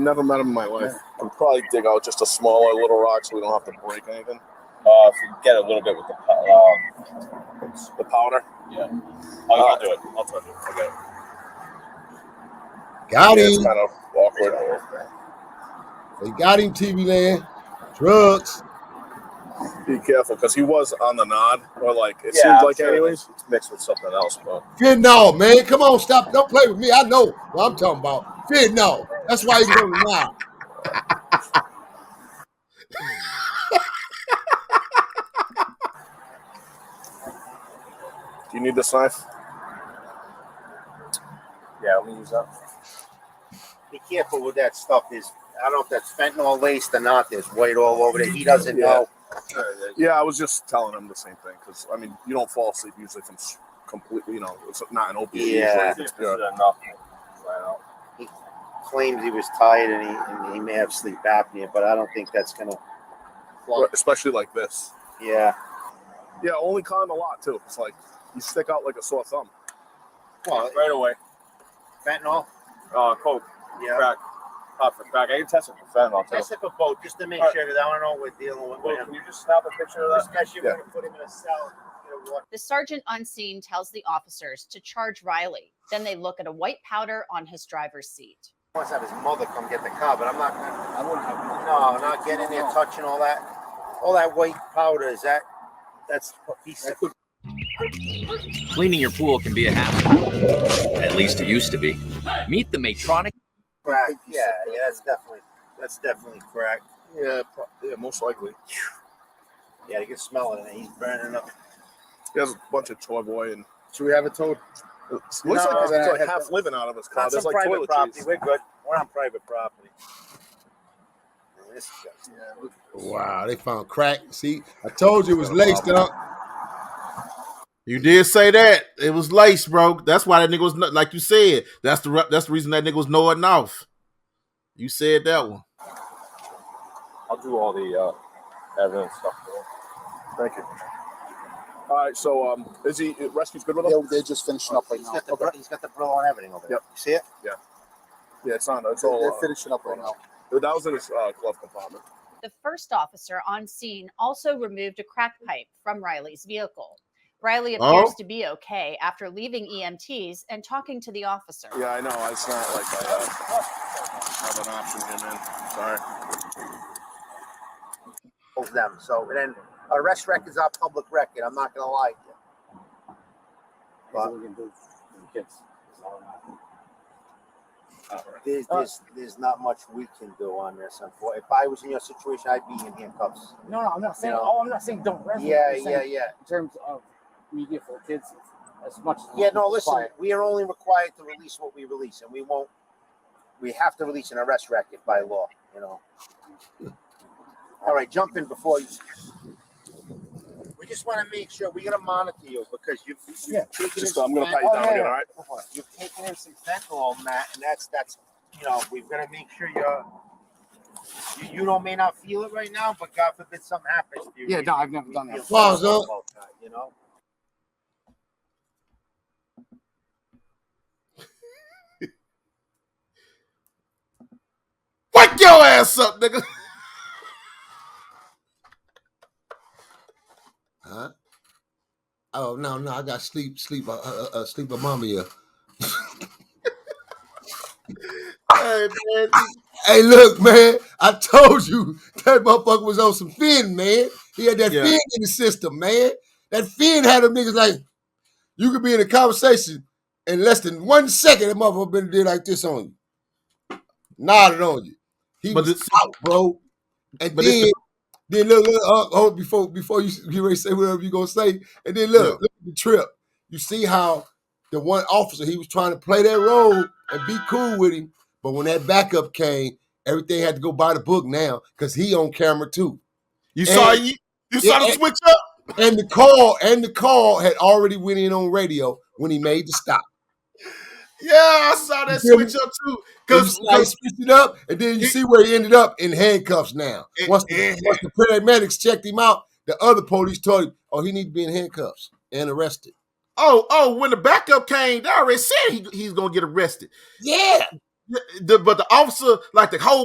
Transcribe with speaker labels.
Speaker 1: Never met him in my life.
Speaker 2: We'll probably dig out just a smaller little rock so we don't have to break anything.
Speaker 3: Uh, if we can get a little bit with the, po- um,
Speaker 2: The powder.
Speaker 3: Oh, I'll,
Speaker 2: Uh,
Speaker 3: I'll do it. I'll try to do it. Okay.
Speaker 2: Yeah,
Speaker 4: Got
Speaker 2: it's
Speaker 4: him.
Speaker 2: kind of awkward.
Speaker 4: They got him, TV land. Drugs.
Speaker 2: Be careful because he was on the nod, or like it
Speaker 3: Yeah,
Speaker 2: seems
Speaker 3: I'm
Speaker 2: like,
Speaker 3: sure
Speaker 2: anyways, it's mixed with something else. But
Speaker 4: Fentanyl, man. Come on, stop. Don't play with me. I know what I'm talking about. Fentanyl. That's why he's going to lie.
Speaker 2: do you need this knife?
Speaker 3: Yeah, let me use that.
Speaker 5: Be careful with that stuff. There's, I don't know if that's fentanyl laced or not. There's white all over there. He doesn't know.
Speaker 2: Yeah, I was just telling him the same thing because I mean, you don't fall asleep usually from s- completely. You know, it's not an opiate.
Speaker 5: Yeah.
Speaker 2: usually,
Speaker 3: See
Speaker 2: it's
Speaker 3: if this is
Speaker 2: pure.
Speaker 3: enough. Wow.
Speaker 5: Claims he was tired and he, and he may have sleep apnea, but I don't think that's gonna.
Speaker 2: But especially like this.
Speaker 5: Yeah.
Speaker 2: Yeah, only con a lot too. It's like you stick out like a sore thumb.
Speaker 5: Well,
Speaker 3: Right away.
Speaker 5: fentanyl.
Speaker 3: Uh, coke,
Speaker 5: Yeah.
Speaker 3: crack, pop for crack. I can test it for fentanyl. too.
Speaker 5: Test it for both, just to make sure that I don't know what we're dealing with.
Speaker 3: Well,
Speaker 5: man.
Speaker 3: can you just snap a picture of that?
Speaker 5: Especially if we're gonna put him in a cell. you know, what-
Speaker 6: The sergeant on scene tells the officers to charge Riley. Then they look at a white powder on his driver's seat.
Speaker 5: He wants to have his mother come get the car, but I'm not. gonna- No, not getting there, touching all that, all that white powder. Is that? That's what he said.
Speaker 7: Cleaning your pool can be a hassle. At least it used to be. Meet the Matronic.
Speaker 5: Crack. Yeah, yeah, that's definitely, that's definitely crack.
Speaker 2: Yeah, pro- yeah, most likely.
Speaker 5: Yeah, you can smell it. and He's burning up.
Speaker 2: He has a bunch of toy boy and
Speaker 8: Should we have it towed?
Speaker 2: looks like he's like half living out of his car.
Speaker 5: Not
Speaker 2: There's
Speaker 5: some
Speaker 2: like
Speaker 5: private property.
Speaker 2: toiletries.
Speaker 5: We're good. We're on private property. Man, this guy's-
Speaker 4: Wow, they found crack. See, I told you it was laced up.
Speaker 8: You did say that it was lace, bro. That's why that nigga was nut- like you said. That's the re- that's the reason that nigga was nodding off. You said that one.
Speaker 3: I'll do all the uh, evidence stuff. for you.
Speaker 2: Thank you. All right, so um, is he rescue's good with him?
Speaker 9: They're, they're just finishing up right
Speaker 5: He's
Speaker 9: now.
Speaker 5: got the bro- he's got the bro on everything over there. You see it?
Speaker 2: Yeah, it's on. It's
Speaker 9: They're,
Speaker 2: all.
Speaker 9: they're
Speaker 2: Uh,
Speaker 9: finishing up right now.
Speaker 2: that was in his uh, glove compartment.
Speaker 6: The first officer on scene also removed a crack pipe from Riley's vehicle. Riley appears
Speaker 8: Oh.
Speaker 6: to be okay after leaving EMTs and talking to the officer.
Speaker 2: Yeah, I know. It's not like I have, have an option here, man. Sorry.
Speaker 5: Of them. So and then arrest record's our public record. I'm not gonna lie. to you. But there's, there's there's not much we can do on this. Unfortunately, if I was in your situation, I'd be in handcuffs.
Speaker 10: No, no, I'm not saying.
Speaker 5: You know?
Speaker 10: Oh, I'm not saying don't rest.
Speaker 5: Yeah,
Speaker 10: I'm saying
Speaker 5: yeah, yeah.
Speaker 10: In terms of media for kids, as much. As
Speaker 5: Yeah, no,
Speaker 10: it's
Speaker 5: listen,
Speaker 10: required.
Speaker 5: we are only required to release what we release, and we won't, we have to release an arrest record by law, you know. All right, jump in before you. We just want to make sure, we're gonna monitor you, because you've. you've
Speaker 10: Yeah.
Speaker 5: taken in
Speaker 2: Just I'm gonna
Speaker 5: some
Speaker 2: pat you
Speaker 5: fent-
Speaker 2: down
Speaker 10: yeah,
Speaker 2: again.
Speaker 10: yeah.
Speaker 2: All right.
Speaker 5: oh, hold on. You've taken in some fentanyl, Matt, and that's, that's, you know, we've gotta make sure you're, you, you don't, may not feel it right now, but God forbid something happens to you.
Speaker 10: Yeah,
Speaker 5: we-
Speaker 10: no, I've never
Speaker 5: we
Speaker 10: done
Speaker 5: feel
Speaker 10: that.
Speaker 4: Well,
Speaker 5: sorry
Speaker 4: so-
Speaker 5: about that, You know?
Speaker 8: Wake your ass up, nigga.
Speaker 4: Huh? Oh no, no, I got sleep, sleep, uh, uh, uh, sleep, mommy.
Speaker 8: Hey, man.
Speaker 4: Hey, look, man, I told you that motherfucker was on some fin, man. He had that
Speaker 8: Yeah.
Speaker 4: fin in the system, man. That fin had them niggas like you could be in a conversation in less than one second. That motherfucker been did like this on you, nodded on you. He
Speaker 8: But
Speaker 4: was
Speaker 8: it's-
Speaker 4: out, bro. And
Speaker 8: but it's
Speaker 4: then,
Speaker 8: the-
Speaker 4: then look, look, uh, oh, before before you s- you ready to say whatever you gonna say, and then look, look at the trip. You see how the one officer he was trying to play that role and be cool with him, but when that backup came, everything had to go by the book now because he on camera too,
Speaker 8: You saw
Speaker 4: Hey.
Speaker 8: you, you saw
Speaker 4: Yeah.
Speaker 8: the switch up.
Speaker 4: and the call and the call had already went in on radio when he made the stop.
Speaker 8: Yeah, I saw that
Speaker 4: You feel me?
Speaker 8: switch up too.
Speaker 4: Because
Speaker 8: Cause,
Speaker 4: like switched it up, and then you
Speaker 8: It-
Speaker 4: see where he ended up in handcuffs. Now,
Speaker 8: It-
Speaker 4: once the,
Speaker 8: it-
Speaker 4: once the paramedics checked him out, the other police told him, "Oh, he need to be in handcuffs and arrested."
Speaker 8: oh, oh, when the backup came, they already said he, he's gonna get arrested.
Speaker 4: Yeah,
Speaker 8: the, but the officer, like the whole